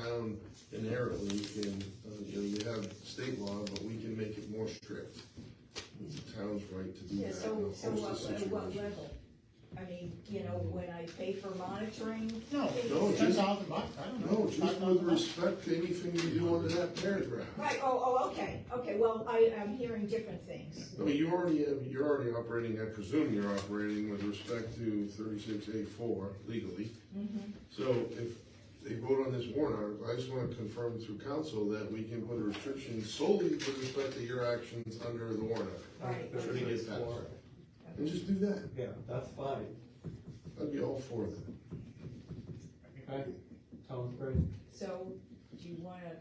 town inherently can, uh, you know, you have state law, but we can make it more strict. It's the town's right to do Yeah, that. so, in a so host what, of at what situations. level? I mean, you know, when I pay for monitoring? Oh, No, No, ten Oh, just- thousand bucks, I don't know. No, just with respect to anything you do under that paragraph. Right, oh, oh, okay, okay, well, I, I'm hearing different things. No, you already have, you're already operating, I presume you're operating with respect to thirty-six A four legally. Mm-hmm, So if they vote on this warrant article, I just wanna confirm through council that we can put a restriction solely with respect to your actions under the warrant article. Right. Should it get passed? And just do that, Yeah, that's fine, I'd be all for that. okay, sounds great. So, do you wanna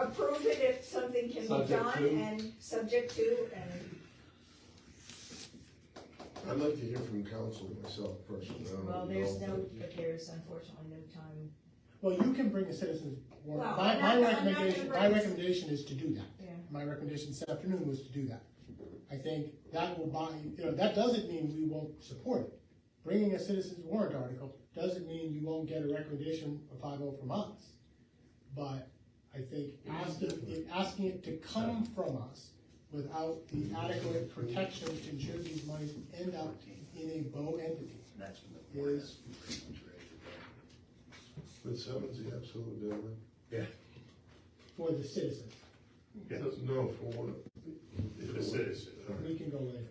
approve it if something can be Subject done to. and subject to and, I'd like to hear from council myself personally. I don't well, there's know. no, but there's unfortunately no time. Well, you can bring a citizen's warrant, Well, my, I'm my not- I'm not recommendation, gonna my bring- recommendation is to do that. Yeah. My recommendation this afternoon was to do that. I think that will buy, you know, that doesn't mean we won't support it. Bringing a citizen's warrant article doesn't mean you won't get a recommendation of five oh from us. But I think asking, asking it to come from us without the adequate protection to ensure these monies end up in a bow entity is But seven's the absolute deadline. for the citizens. Yeah. No, for one. For the citizen. We can go later.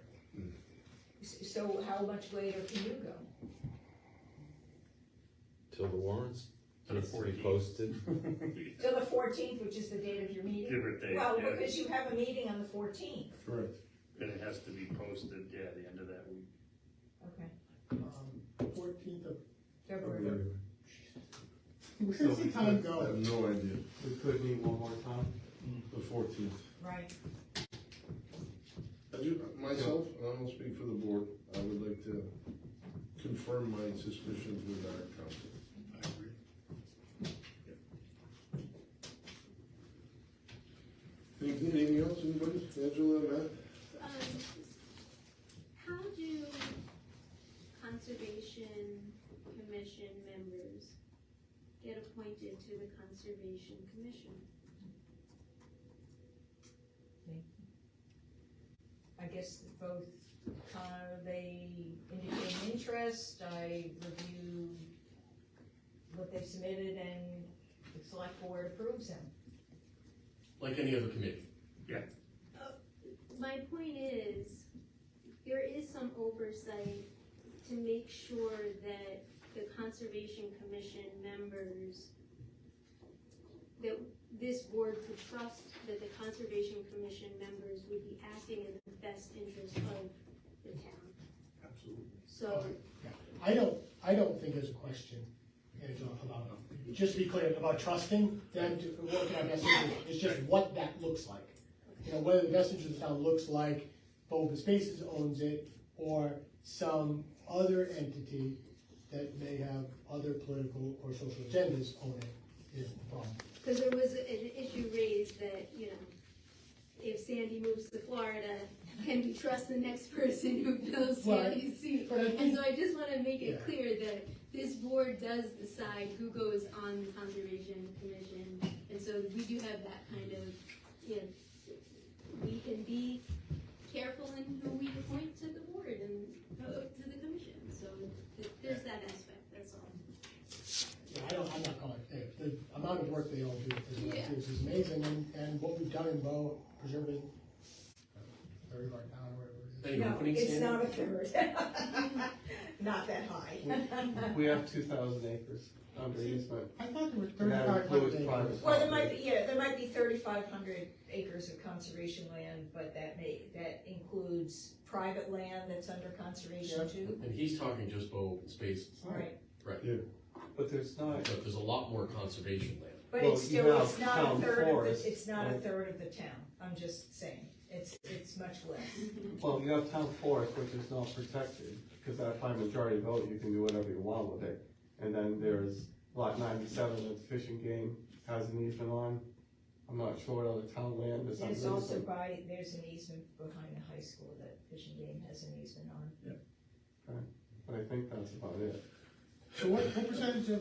S- So how much later can you go? Till the warrants, Till the and it's to be 14th. posted. Till the fourteenth, which is the date of your meeting? Give or take, Well, yeah. because you have a meeting on the fourteenth, Correct. And it has to be posted, yeah, the end of that week. okay, Um, Fourteenth of, February. where's the time I go? have no idea, We could meet one more time. the fourteenth. Right, I do, myself, and I will speak for the board, I would like to confirm my suspicions with our council. Anything anything else, anybody, Angela, Matt? Um, how do conservation commission members get appointed to the conservation commission? I guess both, uh, they indicate an interest, I review what they submitted and the select board approves them. Like any other committee. My point is, there is some oversight to make sure that the conservation commission members, that this board could trust that the conservation commission members would be acting in the best interest of the town. Absolutely. So, I don't, I don't think there's a question, Angela, about, just to be clear, about trusting them to work in our best interest. It's just what that looks like. You know, whether the best interest of the town looks like Open Spaces owns it or some other entity that may have other political or social agendas own it is the problem. Because there was an issue raised that, you know, if Sandy moves to Florida, can we trust the next person who fills Well, Sandy's seat? but I think- And so I just want to make Yeah. it clear that this board does decide who goes on the conservation commission. And so we do have that kind of, you know, we can be careful in who we appoint to the board and uh, to the commission. So th- there's that aspect, that's all. Yeah, I don't, I'm not calling, it- the, the amount of work they all do is, Yeah. is is amazing, and, and what we've done in Bo, preserving third of our town, or whatever it is. Are you No, opening it's Sandy? not a third. Not that high. We have two thousand acres under easement. I thought there were And that thirty-five includes hundred private acres. Well, there might be, yeah, there might be thirty-five hundred acres of conservation land, but that may, that includes private land that's under conservation too. And he's talking just about open spaces, Right, But there's not, but there's a lot more conservation land. but Well, it's you still, have it's not a town third of forest, the, it's not a right? third of the town, I'm just saying, it's, it's much less. well, you have town forest, which is not protected, because that high majority vote, you can do whatever you want with it. And then there's lot ninety-seven that the fishing game has an easement on. I'm not sure what other town land is under There's also easement. by, there's an easement behind the high school that Fish and Game has an easement on. But I think that's about it. So what, what percentage of